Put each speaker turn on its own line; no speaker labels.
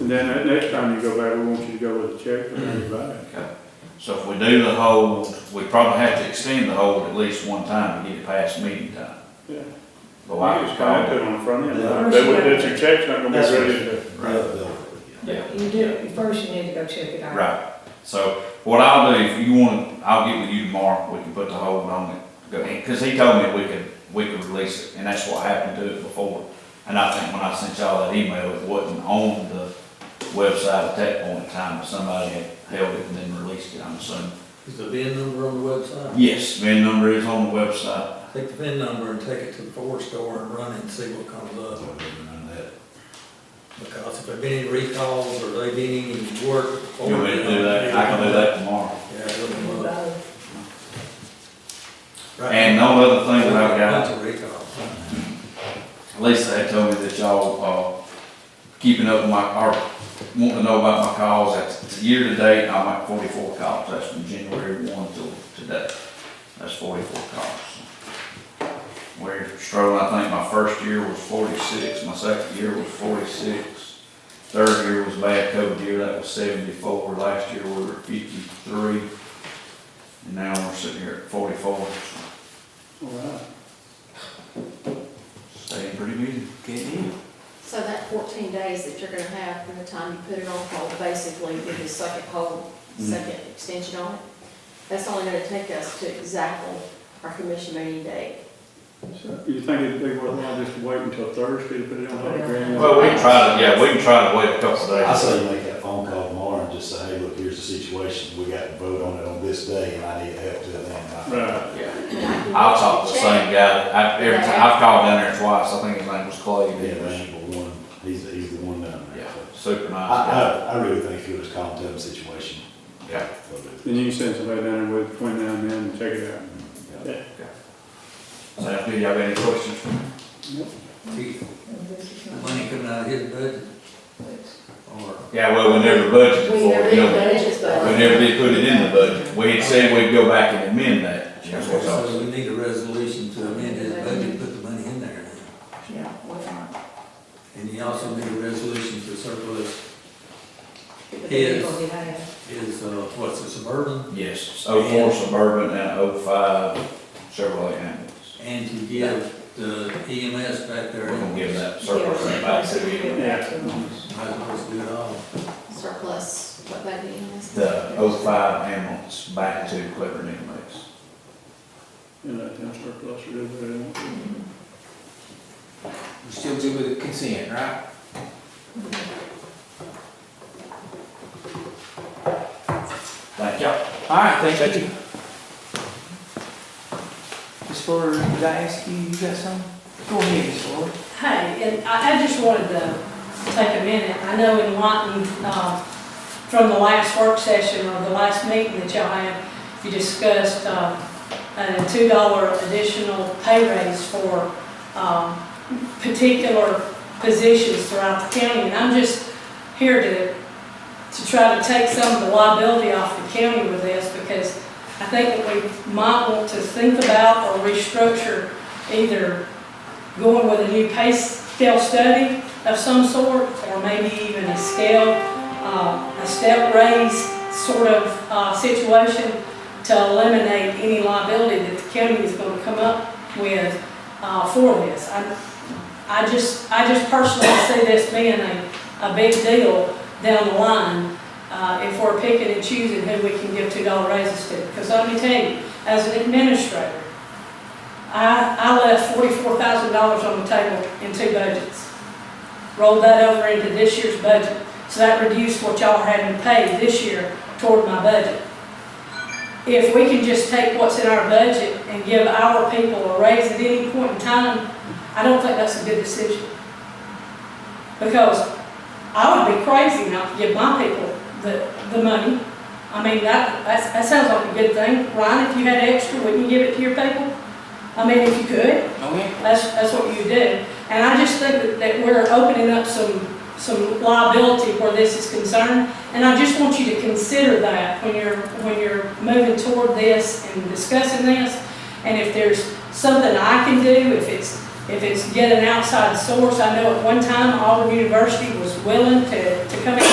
And then that next time you go back, we want you to go with a check for everybody.
So if we do the hold, we probably have to extend the hold at least one time to get it past meeting time.
Yeah.
The
Well,
light
you
was
just
called.
kind of put it on the front end,
Yeah.
They would- that's your check's not gonna
That's
be
what-
ready to.
Yeah.
But you do, first you need to go check it out.
Right, so what I'll do, if you want, I'll get with you tomorrow, we can put the hold on it. Go- and- Cause he told me we could, we could release it, and that's what happened to it before. And I think when I sent y'all that email, it wasn't on the website at that point in time, but somebody had held it and then released it, I'm assuming.
Is the VIN number on the website?
Yes, VIN number is on the website.
Take the VIN number and take it to the Ford store and run it and see what comes
I
up.
wouldn't have known that.
Because if there've been any recalls or they've been any work.
You want me to do that? I can do that tomorrow.
Yeah, look
You
them up.
both.
Right.
And no other thing that I've got,
Bunch of recalls.
Lisa had told me that y'all, uh, keeping up with my, or wanting to know about my calls, that's year to date, I'm at forty-four calls, that's from January one till today, that's forty-four calls. We're strolling, I think my first year was forty-six, my second year was forty-six, third year was bad COVID year, that was seventy-four, last year we were fifty-three, and now we're sitting here at forty-four, so
Wow.
staying pretty busy.
So that fourteen days that you're gonna have from the time you put it on hold, basically with the second hold,
Mm-hmm.
second extension on it, that's only gonna take us to exactly our commission meeting date.
So You think it'd be worthwhile just to wait until Thursday to put it on the grand?
Well, we can try to, yeah, we can try to wait a couple
I
days.
say you make that phone call tomorrow and just say, hey, look, here's the situation, we got to vote on it on this day, and I need help till then.
Right.
Yeah.
And I can
I'll
get
talk
you
to
a
the
check.
same guy, I, every time, I've called down there twice, I think his name was Clay.
Yeah, man, but one, he's, he's the one down there.
Yeah, super
I,
nice guy,
I, I really think if you just call and tell the situation.
yeah.
they'll do
Then you can send somebody down there with between now and then and check it out.
it.
Yeah.
So, do y'all have any questions for me?
Gee,
And this is not-
Money coming out of his budget or?
Yeah, well, we never budgeted
We
before,
never
you
did
know,
budget,
uh,
we
but
never did put it in the budget, we had said we'd go back and amend that, that's what's
So
awesome.
we need a resolution to amend his budget, put the money in there.
Yeah, we're not.
And you also need a resolution to surplus
But the
Yes.
people we have,
his, uh, what's it, Suburban?
Yes, oh four Suburban and oh five Chevrolet ambulance,
And to give the EMS back
we're
there.
gonna give that surplus back to you.
Yeah.
Might as well do it all.
surplus, what that means.
The oh five ambulance back to Clever Nicholas.
You know, town surplus or do what they want.
We're still good with the consent, right?
Thank you.
All right, thank you. Ms. Fuller, did I ask you, you got something? Go ahead, Ms. Fuller.
Hey, and I, I just wanted to take a minute, I know in Lawton, uh, from the last work session or the last meeting that y'all had, you discussed, uh, a two dollar additional pay raise for, um, particular positions throughout the county, and I'm just here to, to try to take some of the liability off the county with this, because I think that we might want to think about or restructure either going with a new pay scale study of some sort, or maybe even a scale, uh, a step raise sort of uh, situation to eliminate any liability that the county is going to come up with uh, for this. I I just, I just personally see this being a, a big deal down the line uh, if we're picking and choosing who we can give $2 raises to. Because let me tell you, as an administrator, I, I left forty-four thousand dollars on the table in two budgets. Rolled that over into this year's budget, so that reduced what y'all had to pay this year toward my budget. If we can just take what's in our budget and give our people a raise at any point in time, I don't think that's a good decision. Because I would be crazy not to give my people the, the money. I mean, that, that's- that sounds like a good thing. Ryan, if you had extra, wouldn't you give it to your people? I mean, if you could,
Okay.
that's, that's what you do. And I just think that, that we're opening up some, some liability where this is concerned. And I just want you to consider that when you're, when you're moving toward this and discussing this. And if there's something I can do, if it's, If it's get an outside source, I know at one time Auburn University was willing to, to come in